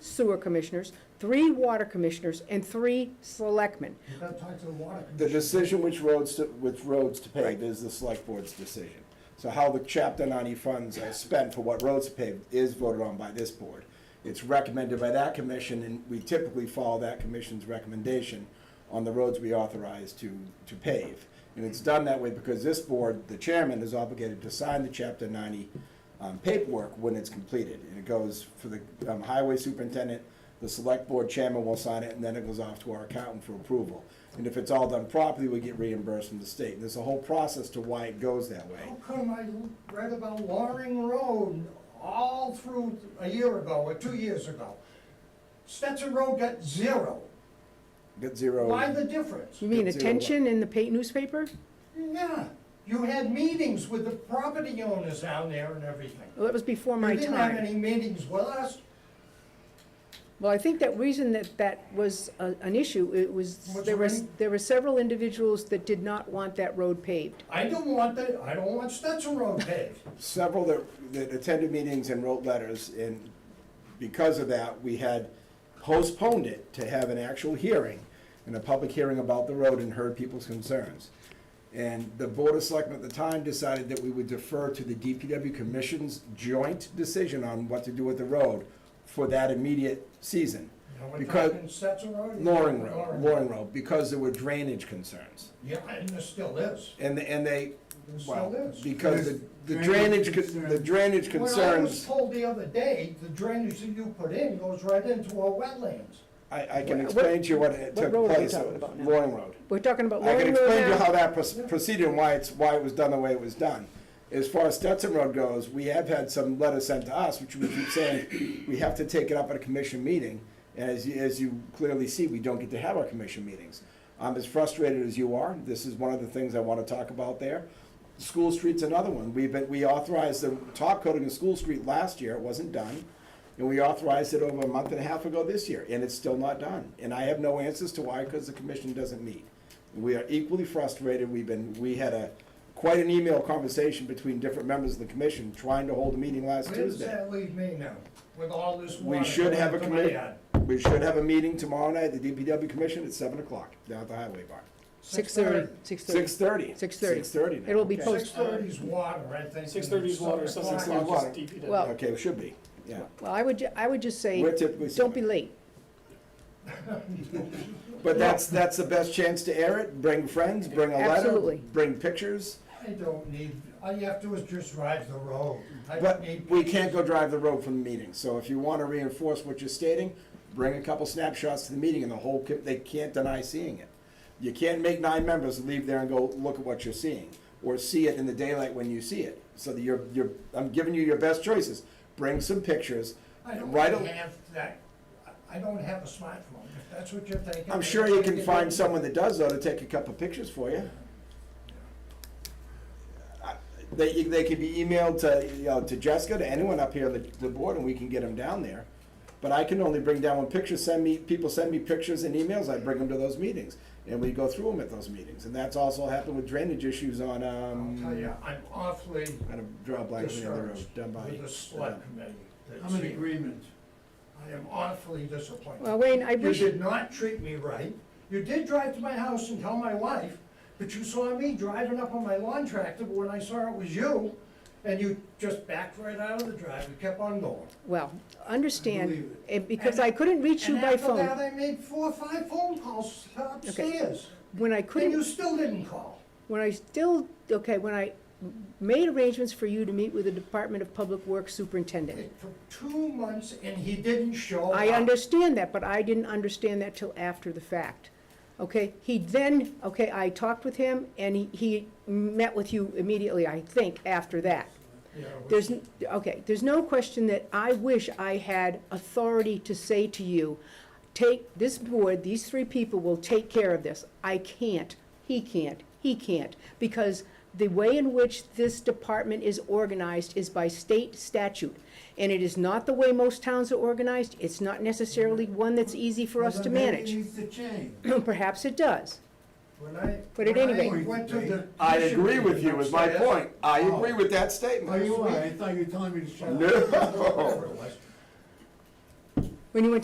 sewer commissioners, three water commissioners, and three selectmen. You've got to talk to the water. The commissioner. decision which roads to, which roads to Right. pave is the select board's decision. So how the chapter ninety funds are spent for what roads to pave is voted on by this board. It's recommended by that commission, and we typically follow that commission's recommendation on the roads we authorize to, to pave. And it's done that way because this board, the chairman, is obligated to sign the chapter ninety um, paperwork when it's completed. And it goes for the um, highway superintendent, the select board chairman will sign it, and then it goes off to our accountant for approval. And if it's all done properly, we get reimbursed from the state. There's a whole process to why it goes that way. How come I read about Loring Road all through a year ago or two years ago? Stetson Road got zero. Get zero. Why the difference? You mean Zero. attention in the paid newspaper? Yeah, you had meetings with the property owners down there and everything. Well, that was before You my didn't have time. any meetings with us. Well, I think that reason that that was a- an issue, it was, What's there the was, reason? there were several individuals that did not want that road paved. I don't want the, I don't want Stetson Road paved. Several that, that attended meetings and wrote letters, and because of that, we had postponed it to have an actual hearing and a public hearing about the road and heard people's concerns. And the Board of Selectmen at the time decided that we would defer to the DPW Commission's joint decision on what to do with the road for that immediate season. Now we're Because, talking Stetson Road? Loring Road, Loring Road, because there were drainage concerns. Yeah, and there still is. And, and they, There well, still is. because the the There's drainage drainage, con- the concerns. drainage When I was concerns, told the other day, the drainage that you put in goes right into our wetlands. I, I can What- explain to you what what it took road are we place, talking at about now? Loring Road. We're talking about I Loring can Road explain to you now. how that proce- proceeded and why it's, why it was done the way it was done. As far as Stetson Road goes, we have had some letters sent to us, which we keep saying, we have to take it up at a commission meeting. And as, you- as you clearly see, we don't get to have our commission meetings. I'm as frustrated as you are, this is one of the things I wanna talk about there. School Street's another one, we've been, we authorized the top coating of School Street last year, it wasn't done. And we authorized it over a month and a half ago this year, and it's still not done. And I have no answers to why, because the commission doesn't meet. We are equally frustrated. We've been, we had a, quite an email conversation between different members of the commission trying to hold a meeting last Where does Tuesday. that leave me now, with all this water? We should have a coming into my committee, yard? we should have a meeting tomorrow night at the DPW commission at seven o'clock down at the highway bar. Six thirty, six thirty. Six thirty. 6:30. Six thirty now. It'll be Okay. posted. Six thirty's water, I think. Six thirty is water, seven Six o'clock. o'clock is DPW. Well- Okay, it should be, yeah. Well, I would, ju- I would just say, We're typically don't be seven. late. But that's, that's the best chance to air it. Bring friends, bring a letter, Absolutely. bring pictures. I don't need, all you have to do is just drive the road. I don't But need. we can't go drive the road from the meeting, so if you wanna reinforce what you're stating, bring a couple snapshots to the meeting and the whole, co- they can't deny seeing it. You can't make nine members leave there and go, look at what you're seeing, or see it in the daylight when you see it. So that you're, you're, I'm giving you your best choices, bring some pictures, I don't write a, have that, I I don't have a smartphone, if that's what you're thinking. I'm sure you can find someone that does though to take a couple pictures for you. I- They, they could be emailed to, you know, to Jessica, to anyone up here on the, the board, and we can get them down there. But I can only bring down one picture, send me, people send me pictures and emails, I bring them to those meetings, and we go through them at those meetings, and that's also happened with drainage issues on, I'll um. tell you, I'm awfully Kind of draw a blank on the other road, discouraged done by. with the select committee. that's I'm in here. agreement. I am awfully disappointed. Well, Wayne, I You wish, did not treat me right. You did drive to my house and tell my wife, but you saw me driving up on my lawn tractor, but when I saw it was you, and you just backed right out of the drive and kept on going. well, I understand, believe and because I couldn't reach you by And after phone, that, I made four or five phone calls upstairs, when I and couldn't you still didn't call. when I still, okay, when I made arrangements for you to meet with the Department of Public Works Superintendent. It took two months and he didn't show up. I understand that, but I didn't understand that till after the fact. Okay, he then, okay, I talked with him and he, he met with you immediately, I think, after that. Yeah, it was- There's, n- okay, there's no question that I wish I had authority to say to you, take, this board, these three people will take care of this. I can't, he can't, he can't, because the way in which this department is organized is by state statute. And it is not the way most towns are organized, it's not necessarily one that's easy for us to Well, then maybe manage. it needs to change. Perhaps it does. When I. But at when any I rate- went to the I commission agree with you, meeting is my upstairs, point, I agree with that Oh, statement. you are, I thought you were telling me to shut up. No. whatever it was, When you went